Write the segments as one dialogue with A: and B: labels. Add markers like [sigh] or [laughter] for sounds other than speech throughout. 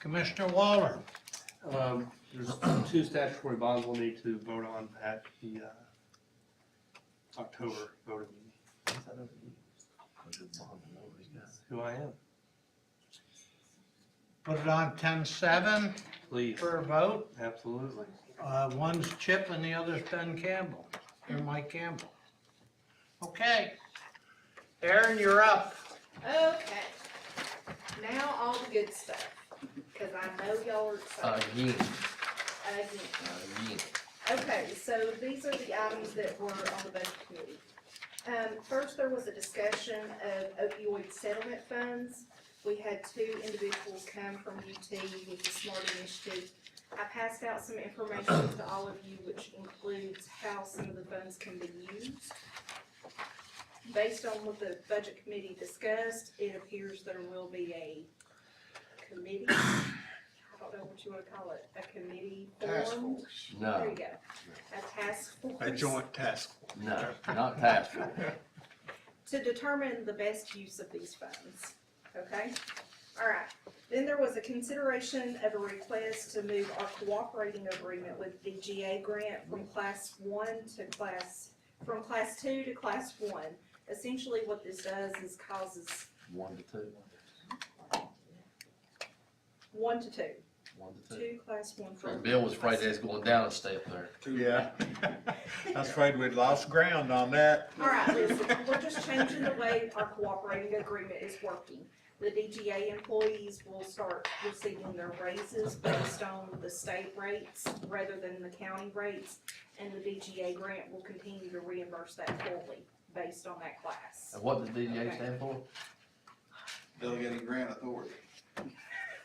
A: Commissioner Waller,
B: Um, There's two statutory bonds we'll need to vote on at the uh, October voting meeting. Who I am,
A: put it on ten-seven
B: please,
A: for a vote.
B: absolutely.
A: Uh, one's Chip and the other's Ben Campbell, or Mike Campbell. Okay. Aaron, you're up.
C: Okay, now all the good stuff, cause I know y'all are excited
D: Again,
C: again.
D: again.
C: Okay, so these are the items that were on the budget committee. Um, first, there was a discussion of opioid settlement funds. We had two individuals come from UT with the SMART initiative. I passed out some information to all of you, which includes how some of the funds can be used. Based on what the budget committee discussed, it appears there will be a committee, I don't know what you wanna call it, a committee
E: Task
C: formed. There
D: No,
C: you go. A task force.
E: A joint task.
D: no, not task force.
C: To determine the best use of these funds, okay? All right, then there was a consideration of a request to move our cooperating agreement with the GA grant from class one to class, from class two to class one. Essentially, what this does is causes
D: One to two,
C: one to two,
D: one to two.
C: two class one
D: And
C: from.
D: Bill was afraid that's going down a step there.
E: [laughs] Yeah. I was afraid we'd lost ground on that.
C: All right, listen, we're just changing the way our cooperating agreement is working. The DGA employees will start receiving their raises based on the state rates rather than the county rates. And the DGA grant will continue to reimburse that fully based on that class.
D: And what does DDA stand for?
F: Delegating grant authority.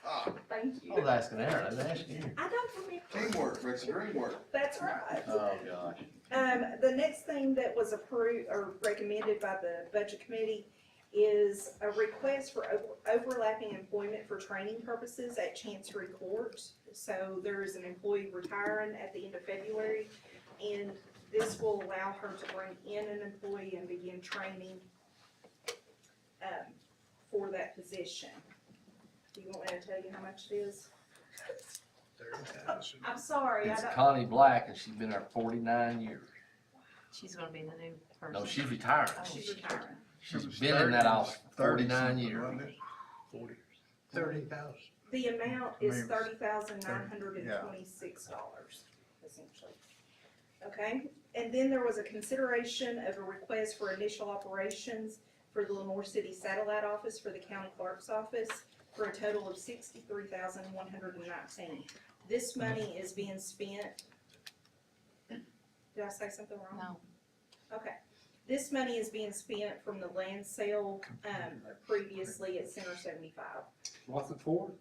F: Ah,
C: Thank
D: I was
C: you.
D: asking Aaron, I was asking you.
C: I don't remember,
F: teamwork, makes the dream work.
C: that's right.
D: Oh, gosh.
C: Um, the next thing that was approved or recommended by the budget committee is a request for over- overlapping employment for training purposes at Chancery Court. So there is an employee retiring at the end of February, and this will allow her to bring in an employee and begin training um, for that position. Do you want me to tell you how much it is? I'm sorry, I
D: It's
C: don't.
D: Connie Black and she's been there forty-nine years.
G: She's gonna be the new person.
D: No, she's retiring.
C: Oh, She's retiring.
D: She's been in that office for forty-nine years.
E: Forty.
A: Thirty thousand.
C: The amount is
E: Maybe.
C: thirty thousand nine hundred and twenty-six dollars, essentially. Okay, and then there was a consideration of a request for initial operations for the Lenore City Satellite Office for the County Clerk's Office for a total of sixty-three thousand one hundred and nineteen. This money is being spent. Did I say something wrong?
G: No,
C: Okay, this money is being spent from the land sale, um, previously at Center seventy-five.
B: What's it for?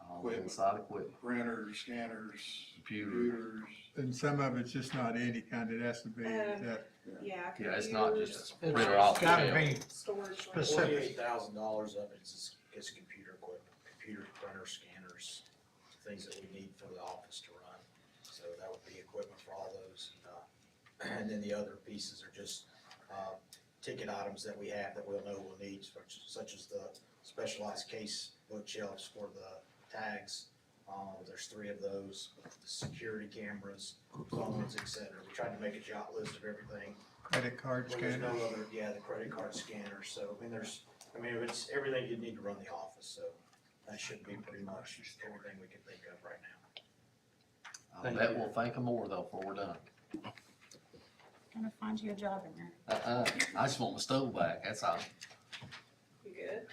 D: All inside equipment,
F: Printers, scanners,
D: computer.
F: computers.
E: And some of it's just not any kind, it has to be
C: Um,
E: that
C: Yeah.
D: Yeah, it's not just a
A: It's
D: printer off the
A: gotta
D: shelf.
A: be
C: Storage. room.
A: Specific.
H: Forty-eight thousand dollars of it is, is computer equipment, computer printer scanners, things that we need for the office to run. So that would be equipment for all those, and, uh, [clears throat] and then the other pieces are just, uh, ticket items that we have that we'll know we'll need, such, such as the specialized case bookshelves for the tags. Um, there's three of those, the security cameras, phones, et cetera. We tried to make a jot list of everything
E: credit card
H: well, there's
E: scanner.
H: no other, yeah, the credit card scanner, so, I mean, there's, I mean, it's everything you need to run the office, so that should be pretty much everything we can think of right now.
D: I bet we'll thank them more though before we're done.
G: gonna find you a job in there.
D: Uh-uh, I just want my stove back, that's all.
C: You good?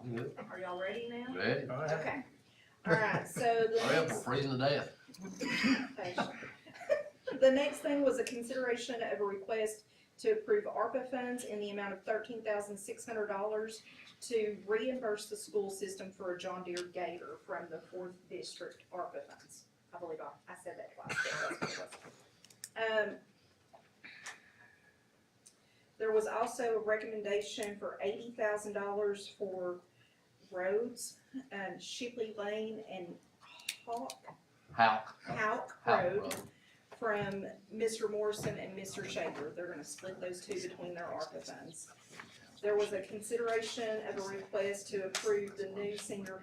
D: I'm good.
C: Are y'all ready now?
D: Ready?
C: Okay. All right, so
D: Hurry
C: the
D: up, we're freezing to death.
C: next, [laughs] the next thing was a consideration of a request to approve ARPA funds in the amount of thirteen thousand six hundred dollars to reimburse the school system for a John Deere Gator from the fourth district ARPA funds. I believe I, I said that twice. but that's what it was. Um, There was also a recommendation for eighty thousand dollars for roads, um, Shipley Lane and Hawk,
D: How?
C: Hawk
D: How,
C: Road
D: bro?
C: from Mr. Morrison and Mr. Shaver. They're gonna split those two between their ARPA funds. There was a consideration of a request to approve the new senior